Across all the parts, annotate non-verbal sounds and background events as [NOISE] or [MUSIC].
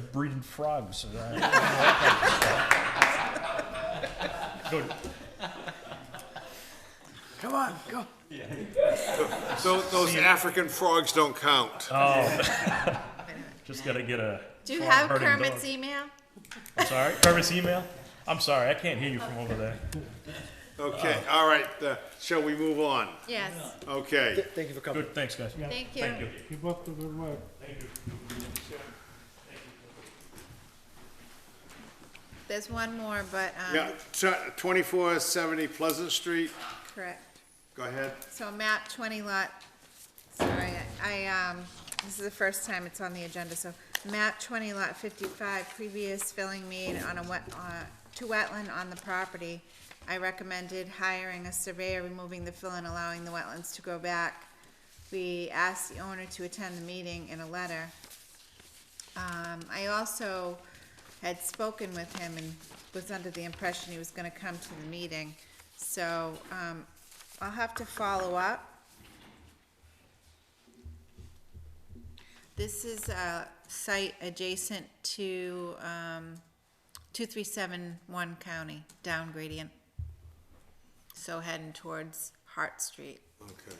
breeding frogs. [LAUGHS] Good. Come on, go. Tho- Those African frogs don't count. Just gotta get a. Do you farm have herding dog. Kermit's email? I'm sorry, Kermit's email? I'm sorry, I can't hear you from over there. Okay, all right, uh, shall we move on? Yes, Okay. Thank you for coming. Good, thanks, guys. thank you. Thank you. Keep up the good work. There's one more, but, um, Yeah, twenty-four seventy Pleasant Street, correct. go ahead. So map twenty lot, sorry, I, um, this is the first time it's on the agenda, so map twenty lot fifty-five, previous filling made on a wet, uh, to wetland on the property. I recommended hiring a surveyor, removing the fill and allowing the wetlands to go back. We asked the owner to attend the meeting in a letter. Um, I also had spoken with him and was under the impression he was gonna come to the meeting. So, um, I'll have to follow up. This is a site adjacent to, um, two-three-seven-one County, down gradient. So heading towards Hart Street, Okay,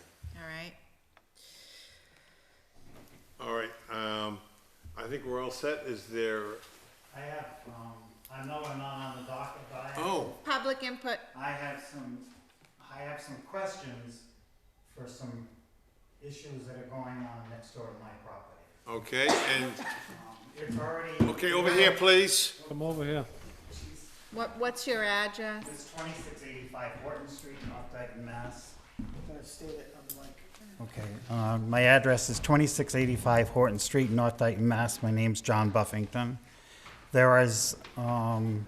all right? all right, um, I think we're all set, is there, I have, um, I know we're not on the docket, but I have. oh, Public input, I have some, I have some questions for some issues that are going on next door to my property. okay, and, Um, It's already. okay, over here, please. Come over here. what, what's your address? It's twenty-six eighty-five Horton Street, North Dayton, Mass. Okay, uh, my address is 2685 Horton Street, North Dayton, Mass. My name's John Buffington. There is, um,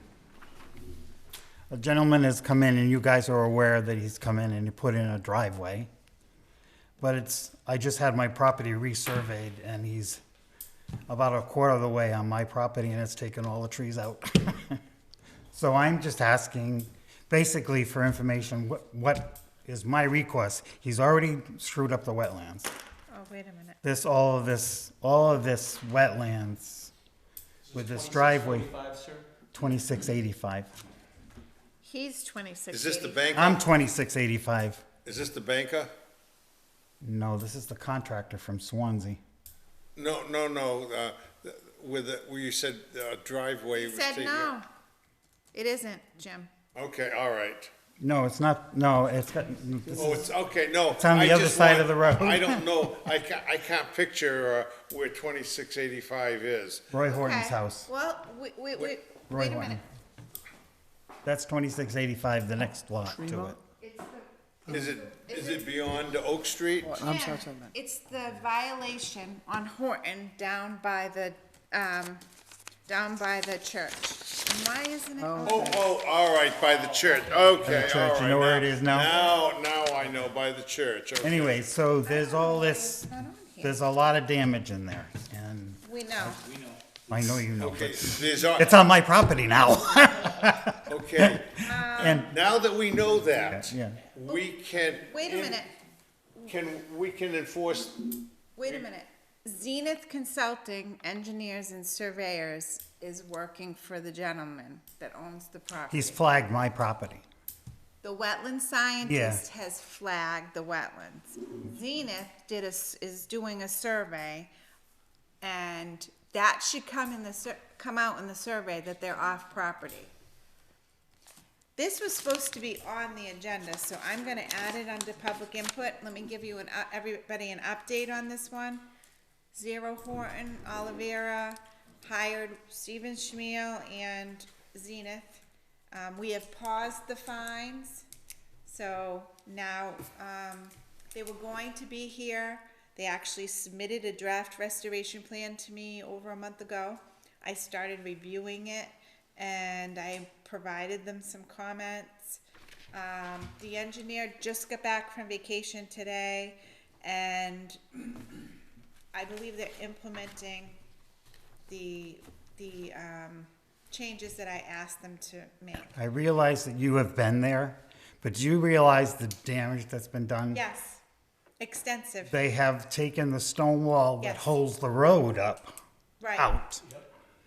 a gentleman has come in, and you guys are aware that he's come in and he put in a driveway. But it's, I just had my property resurveyed, and he's about a quarter of the way on my property, and it's taken all the trees out. [LAUGHS] So I'm just asking, basically for information, what, what is my request? He's already screwed up the wetlands. Oh, wait a minute. This, all of this, all of this wetlands with this driveway. Twenty-six eighty-five. He's twenty-six Is this the eighty. banker? I'm twenty-six eighty-five. Is this the banker? No, this is the contractor from Swansea. No, no, no, uh, with, the- where you said uh, driveway He was said taken. no. It isn't, Jim. Okay, all right. No, it's not, no, it's got, this Oh, is- it's, okay, no. It's on the I other just side want- of the road. I [LAUGHS] don't know, I ca I can't picture, uh, where twenty-six eighty-five is. Roy Horton's Okay, house. Well, wait, wait, wait, Roy wait a Horton. minute. That's twenty-six eighty-five, the next lot to it. It's the Is it, is it beyond Oak Street? I'm Yeah, sorry, sorry, man. It's the violation on Horton down by the, um, down by the church. And Why isn't it? open? Oh, oh, all right, by the church, okay, church, all right. you know where it is now? Now, now I know, by the church, okay. Anyway, so there's all this, It's not on here. there's a lot of damage in there, and We know. I know you know. Okay, but- there's, a- It's on my property now. okay, [LAUGHS] and now that we know that, Yeah. we can. Wait a minute, Can, we can enforce, wait a minute. Zenith Consulting Engineers and Surveyors is working for the gentleman that owns the property. he's flagged my property. The wetland scientist has flagged the wetlands. Zenith did a s is doing a survey, and that should come in the, sur- come out in the survey that they're off property. This was supposed to be on the agenda, so I'm gonna add it under public input. Let me give you an, u- everybody an update on this one. Zero Horton, Olivera, hired Stephen Schmiel and Zenith. Um, we have paused the fines, so now, um, they were going to be here. They actually submitted a draft restoration plan to me over a month ago. I started reviewing it and I provided them some comments. Um, the engineer just got back from vacation today and [CLEARS THROAT] I believe they're implementing the, the, um, changes that I asked them to make. I realize that you have been there, but do you realize the damage that's been done? Yes, extensive, They have taken the stone wall that Yes. holds the road up right. out.